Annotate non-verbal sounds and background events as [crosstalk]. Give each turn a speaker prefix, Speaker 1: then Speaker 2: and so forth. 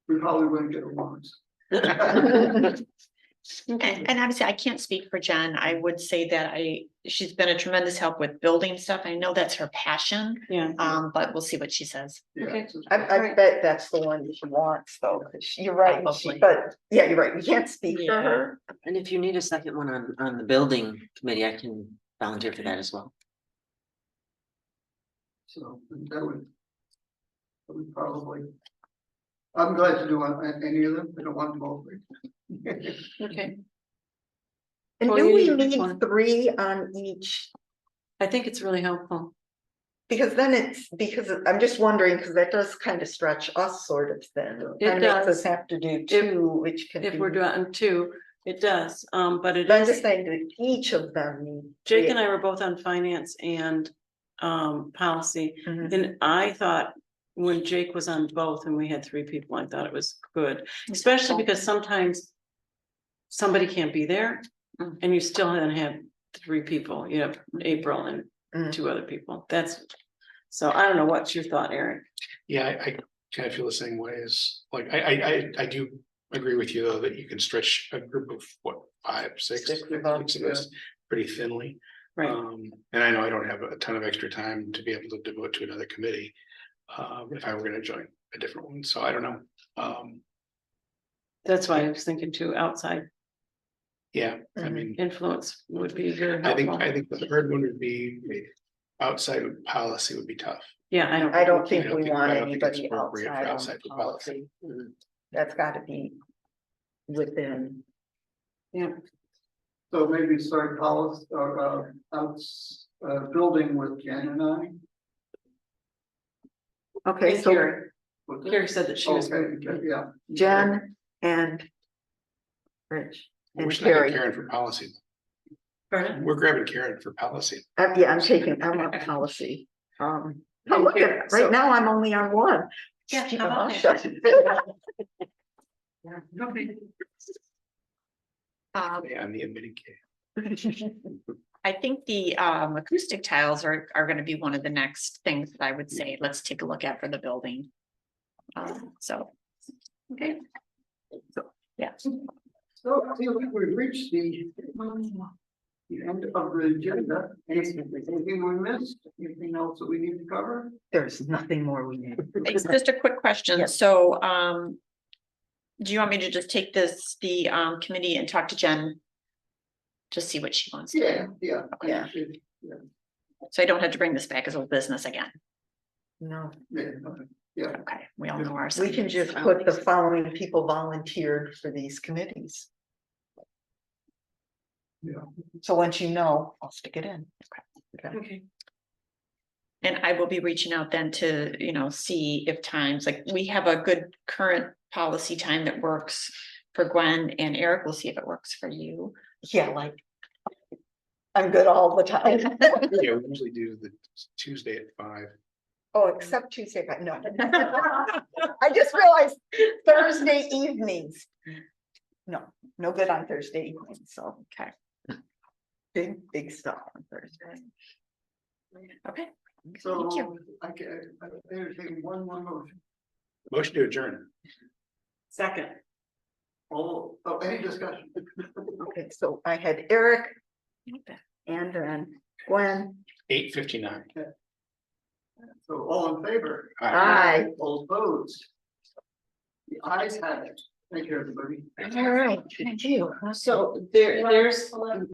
Speaker 1: probably wouldn't get along.
Speaker 2: [laughs]
Speaker 3: And, and obviously I can't speak for Jen. I would say that I, she's been a tremendous help with building stuff. I know that's her passion.
Speaker 2: Yeah.
Speaker 3: Um, but we'll see what she says.
Speaker 1: Yeah,
Speaker 2: Okay.
Speaker 1: so-
Speaker 4: I, I bet that's the one that she wants though, 'cause she- you're right, and she-
Speaker 3: Probably.
Speaker 4: but yeah, you're right, we can't speak for
Speaker 3: Yeah.
Speaker 4: her.
Speaker 5: And if you need a second one on, on the building committee, I can volunteer for that as well.
Speaker 1: So that would. That would probably. I'm glad to do one- a- any of them, I don't want them all three. [laughs]
Speaker 2: Okay,
Speaker 4: And
Speaker 2: Well,
Speaker 4: do
Speaker 2: you
Speaker 4: we
Speaker 2: need each one.
Speaker 4: need three on each?
Speaker 2: I think it's really helpful.
Speaker 4: Because then it's, because I'm just wondering, because that does kind of stretch us sort of thin.
Speaker 2: It
Speaker 4: Kind of makes
Speaker 2: does.
Speaker 4: us have to do two, which can
Speaker 2: If we're
Speaker 4: be.
Speaker 2: doing two, it does, um, but it
Speaker 4: Mm-hmm. But I'm just
Speaker 2: is,
Speaker 4: saying that each of them. need
Speaker 2: Jake
Speaker 4: three.
Speaker 2: and I were both on finance and um, policy.
Speaker 4: Mhm.
Speaker 2: And I thought when Jake was on both and we had three people, I thought it was good, especially because sometimes. Somebody can't be there
Speaker 3: Mm. Mm-hmm.
Speaker 2: and you still then have three people, you have April and
Speaker 4: Mm.
Speaker 2: two other people, that's. So I don't know, what's your thought, Eric?
Speaker 6: Yeah, I, I kind of feel the same way as, like, I, I, I, I do agree with you though, that you can stretch a group of what, five, six?
Speaker 4: Six of us,
Speaker 6: six of us Pretty thinly.
Speaker 2: Right,
Speaker 6: Um, and I know I don't have a ton of extra time to be able to devote to another committee. Uh, if I were gonna join a different one, so I don't know. Um,
Speaker 2: that's why I was thinking too, outside
Speaker 6: yeah, I
Speaker 4: Mhm.
Speaker 6: mean,
Speaker 2: influence would be very
Speaker 6: I think,
Speaker 2: helpful.
Speaker 6: I think the third one would be outside of policy would be tough.
Speaker 2: Yeah, I don't.
Speaker 4: I don't
Speaker 2: we
Speaker 4: think
Speaker 6: don't
Speaker 4: we
Speaker 6: think- I
Speaker 4: want
Speaker 6: don't think it's
Speaker 4: anybody
Speaker 6: appropriate for
Speaker 4: outside on
Speaker 6: outside the
Speaker 4: policy.
Speaker 6: policy.
Speaker 4: That's gotta be within.
Speaker 1: So maybe start policy, or, uh, outs, uh, building with Jen and I.
Speaker 4: Okay,
Speaker 2: And
Speaker 4: so
Speaker 2: Carrie,
Speaker 1: What's that?
Speaker 2: Carrie said that she was.
Speaker 1: Okay,
Speaker 2: good.
Speaker 1: yeah, yeah.
Speaker 4: Jen and Rich.
Speaker 6: We're
Speaker 4: And
Speaker 6: just not
Speaker 4: Carrie.
Speaker 6: Karen for policy.
Speaker 2: Pardon?
Speaker 6: We're grabbing Karen for policy.
Speaker 4: Uh, yeah, I'm taking, I'm on policy. Um, oh, look
Speaker 2: here,
Speaker 3: [laughs]
Speaker 4: at-
Speaker 2: so-
Speaker 4: right now I'm only on one.
Speaker 3: Yeah,
Speaker 4: Keep
Speaker 3: how
Speaker 4: my
Speaker 3: about
Speaker 4: mouth
Speaker 3: that?
Speaker 4: shut.
Speaker 3: Um,
Speaker 6: Yeah, I'm the admitting kid.
Speaker 3: [laughs] I think the um acoustic tiles are are gonna be one of the next things that I would say, let's take a look at for the building. Um, so. Okay. So, yeah.
Speaker 1: So I feel like we've reached the. The end of the agenda, anything, anything we missed, anything else that we need to cover?
Speaker 4: There's nothing more we need.
Speaker 3: It's just a quick question,
Speaker 4: Yes.
Speaker 3: so, um. Do you want me to just take this, the, um, committee and talk to Jen? Just see what she wants,
Speaker 1: Yeah, yeah.
Speaker 4: Yeah.
Speaker 3: so I don't have to bring this back as old business again,
Speaker 4: No,
Speaker 1: Yeah, okay, yeah.
Speaker 3: okay, we all know ours.
Speaker 4: we can just put the following people volunteered for these committees.
Speaker 1: Yeah.
Speaker 4: So once you know, I'll stick it in.
Speaker 2: Okay,
Speaker 3: And I will be reaching out then to, you know, see if times, like, we have a good current policy time that works. For Gwen and Eric, we'll see if it works for you,
Speaker 4: Yeah, like. I'm good all the
Speaker 3: [laughs]
Speaker 4: time.
Speaker 6: Yeah, we usually do the Tuesday at five.
Speaker 4: Oh, except Tuesday, but no. [laughs] I just realized Thursday evenings. No, no good on Thursday evenings, so.
Speaker 3: Okay.
Speaker 4: Big, big stuff on Thursday.
Speaker 3: okay? Thank you.
Speaker 1: So I can, I entertain one more motion.
Speaker 6: Motion to adjourn.
Speaker 2: second.
Speaker 1: All, oh, any discussion?
Speaker 4: Okay, so I had Eric and then Gwen.
Speaker 6: Eight fifty-nine.
Speaker 1: So all in favor?
Speaker 4: Aye.
Speaker 1: All opposed? The ayes have it. Thank you, everybody.
Speaker 4: All right, thank you.
Speaker 2: So there, there's